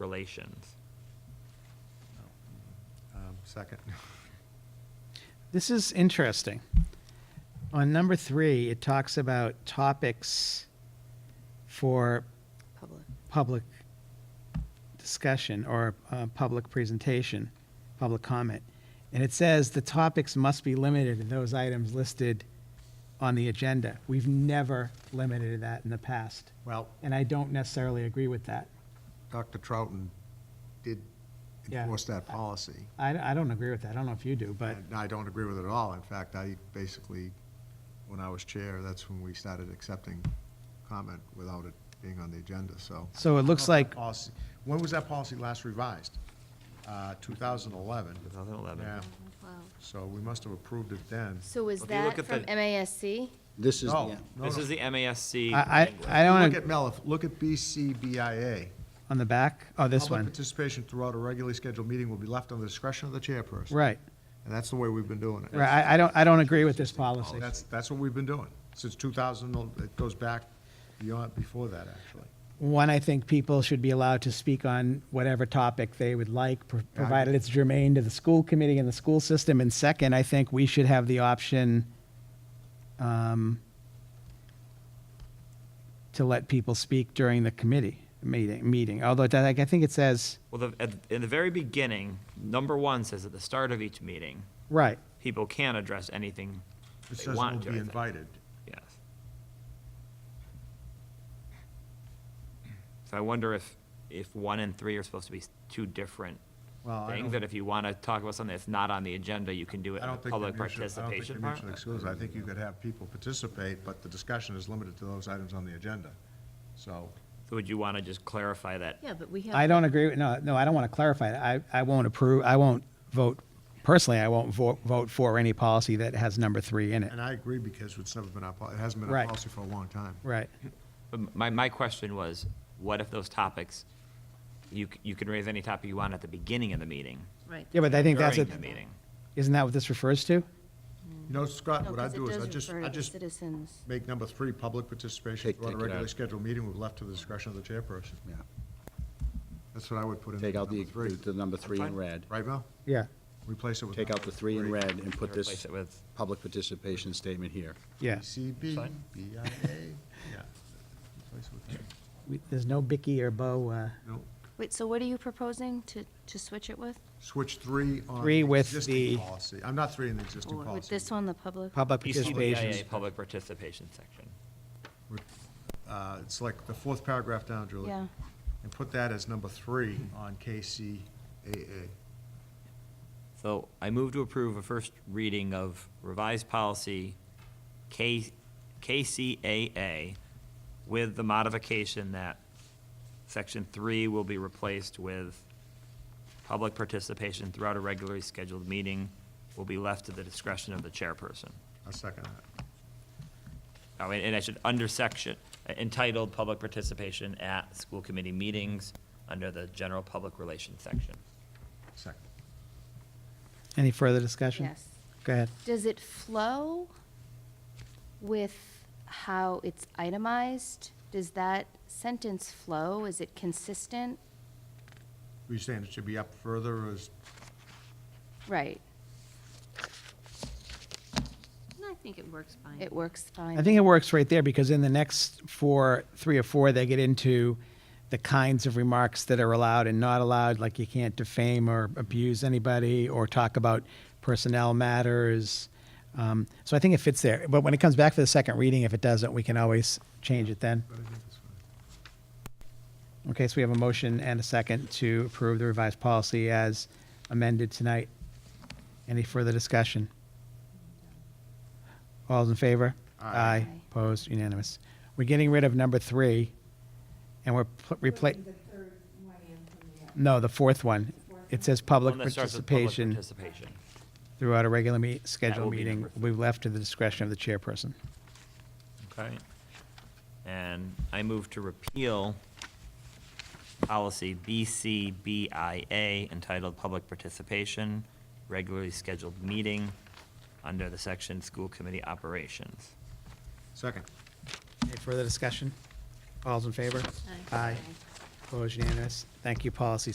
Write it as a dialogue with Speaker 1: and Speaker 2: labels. Speaker 1: relations.
Speaker 2: Um, Second.
Speaker 3: This is interesting. On number three, it talks about topics for
Speaker 4: Public.
Speaker 3: public discussion or uh, public presentation, public comment. And it says the topics must be limited to those items listed on the agenda. We've never limited that in the past,
Speaker 2: Well,
Speaker 3: and I don't necessarily agree with that.
Speaker 2: Dr. Trouton did
Speaker 3: Yeah.
Speaker 2: enforce that policy.
Speaker 3: I, I don't agree with that. I don't know if you do, but
Speaker 2: And I don't agree with it at all. In fact, I basically, when I was chair, that's when we started accepting comment without it being on the agenda, so.
Speaker 3: So it looks like-
Speaker 2: Policy- When was that policy last revised? Uh, 2011.
Speaker 1: 2011.
Speaker 2: Yeah, so we must have approved it then.
Speaker 4: So is
Speaker 1: If you look
Speaker 4: that
Speaker 1: at
Speaker 4: from
Speaker 1: the-
Speaker 4: MASC?
Speaker 5: This is,
Speaker 2: No,
Speaker 5: yeah.
Speaker 2: no,
Speaker 1: This
Speaker 2: no.
Speaker 1: is the MASC.
Speaker 3: I,
Speaker 1: language.
Speaker 3: I, I don't,
Speaker 2: Look
Speaker 3: ag-
Speaker 2: at Melif, look at BCBIA.
Speaker 3: on the back? Oh, this
Speaker 2: Public
Speaker 3: one.
Speaker 2: participation throughout a regularly scheduled meeting will be left on the discretion of the chairperson.
Speaker 3: Right,
Speaker 2: And that's the way we've been doing it.
Speaker 3: right. I, I don't, I don't agree with this policy.
Speaker 2: Oh, That's, that's what we've been doing, since 2000, it goes back beyond, before that, actually.
Speaker 3: One, I think people should be allowed to speak on whatever topic they would like, pro- provided it's germane to the school committee and the school system. And second, I think we should have the option um, to let people speak during the committee meeting, meeting. Although, I think- I think it says,
Speaker 1: Well, the, at, in the very beginning, number one says at the start of each meeting,
Speaker 3: right,
Speaker 1: people can address anything
Speaker 2: It
Speaker 1: they
Speaker 2: says we'll
Speaker 1: want to. I
Speaker 2: be
Speaker 1: think.
Speaker 2: invited.
Speaker 1: Yes. So I wonder if, if one and three are supposed to be two different
Speaker 2: Well, I
Speaker 1: things,
Speaker 2: don't-
Speaker 1: that if you want to talk about something that's not on the agenda, you can do it
Speaker 2: I
Speaker 1: in the
Speaker 2: don't think they're
Speaker 1: public
Speaker 2: mutually, I don't think they're
Speaker 1: participation part?
Speaker 2: mutually exclusive. I think you could have people participate, but the discussion is limited to those items on the agenda. So,
Speaker 1: So would you want to just clarify that?
Speaker 4: Yeah, but we have.
Speaker 3: I don't agree, with no, no, I don't want to clarify it. I, I won't approve, I won't vote, personally, I won't vote, vote for any policy that has number three in it.
Speaker 2: and I agree because it's never been our, pol- it hasn't been our
Speaker 3: Right.
Speaker 2: policy for a long time.
Speaker 3: Right.
Speaker 1: But My, my question was, what if those topics, you, c- you can raise any topic you want at the beginning of the meeting?
Speaker 4: Right.
Speaker 3: Yeah, but I think that's,
Speaker 1: During
Speaker 3: it.
Speaker 1: the meeting.
Speaker 3: isn't that what this refers to?
Speaker 2: You know, Scott,
Speaker 4: No,
Speaker 2: what I
Speaker 4: 'cause it
Speaker 2: do is
Speaker 4: does
Speaker 2: I just,
Speaker 4: refer
Speaker 2: I
Speaker 4: to
Speaker 2: just
Speaker 4: Citizens.
Speaker 2: make number three, public participation
Speaker 5: Take-
Speaker 2: throughout a
Speaker 5: take it
Speaker 2: regularly
Speaker 5: out.
Speaker 2: scheduled meeting, we've left to the discretion of the chairperson.
Speaker 5: Yeah.
Speaker 2: That's what I would put in
Speaker 5: Take out
Speaker 2: number
Speaker 5: the,
Speaker 2: three.
Speaker 5: the number three in red.
Speaker 2: Right, Mel?
Speaker 3: Yeah,
Speaker 2: Replace it with.
Speaker 5: Take out the three in red and put
Speaker 1: Replace
Speaker 5: this
Speaker 1: it with-
Speaker 5: public participation statement here.
Speaker 3: yeah.
Speaker 2: CB,
Speaker 1: Fine.
Speaker 2: BIA, yeah. Replace it with that.
Speaker 3: We- There's no Bicky or Bo, uh,
Speaker 2: No,
Speaker 4: Wait, so what are you proposing to, to switch it with?
Speaker 2: Switch three on.
Speaker 3: Three with
Speaker 2: existing
Speaker 3: the-
Speaker 2: Policy. I'm not three in the existing
Speaker 4: Or
Speaker 2: policy.
Speaker 4: With this one, the public?
Speaker 3: public
Speaker 1: PCBIA,
Speaker 3: participation.
Speaker 1: public participation section.
Speaker 2: Uh, It's like the fourth paragraph down, Julie.
Speaker 4: Yeah.
Speaker 2: And put that as number three on KCAA.
Speaker 1: So I move to approve a first reading of revised policy K, KCAA with the modification that section three will be replaced with public participation throughout a regularly scheduled meeting will be left to the discretion of the chairperson.
Speaker 2: I second that.
Speaker 1: Oh, and, and I should, under section, entitled Public Participation at School Committee Meetings, under the General Public Relations section.
Speaker 2: Second.
Speaker 3: Any further discussion?
Speaker 4: Yes.
Speaker 3: Go ahead.
Speaker 4: Does it flow with how it's itemized? Does that sentence flow? Is it consistent?
Speaker 2: Were you saying it should be up further or is,
Speaker 4: Right,
Speaker 6: I think it works fine.
Speaker 4: it works fine.
Speaker 3: I think it works right there because in the next four, three or four, they get into the kinds of remarks that are allowed and not allowed, like you can't defame or abuse anybody or talk about personnel matters. Um, So I think it fits there. But when it comes back for the second reading, if it doesn't, we can always change it then. Okay, so we have a motion and a second to approve the revised policy as amended tonight. Any further discussion? All's in favor? Aye. Opposed, unanimous. We're getting rid of number three, and we're replacing,
Speaker 7: The third one in from the other.
Speaker 3: no, the fourth one. It says public
Speaker 1: One that starts with public
Speaker 3: participation
Speaker 1: Participation.
Speaker 3: throughout a regular meet,
Speaker 1: will
Speaker 3: scheduled
Speaker 1: be
Speaker 3: meeting
Speaker 1: number
Speaker 3: will be left to the discretion of the chairperson.
Speaker 1: Okay. And I move to repeal policy BCBIA entitled Public Participation, Regularly Scheduled Meeting, under the section School Committee Operations.
Speaker 2: second.
Speaker 3: Any further discussion? All's in favor? Aye. Opposed, unanimous. Thank you, Policy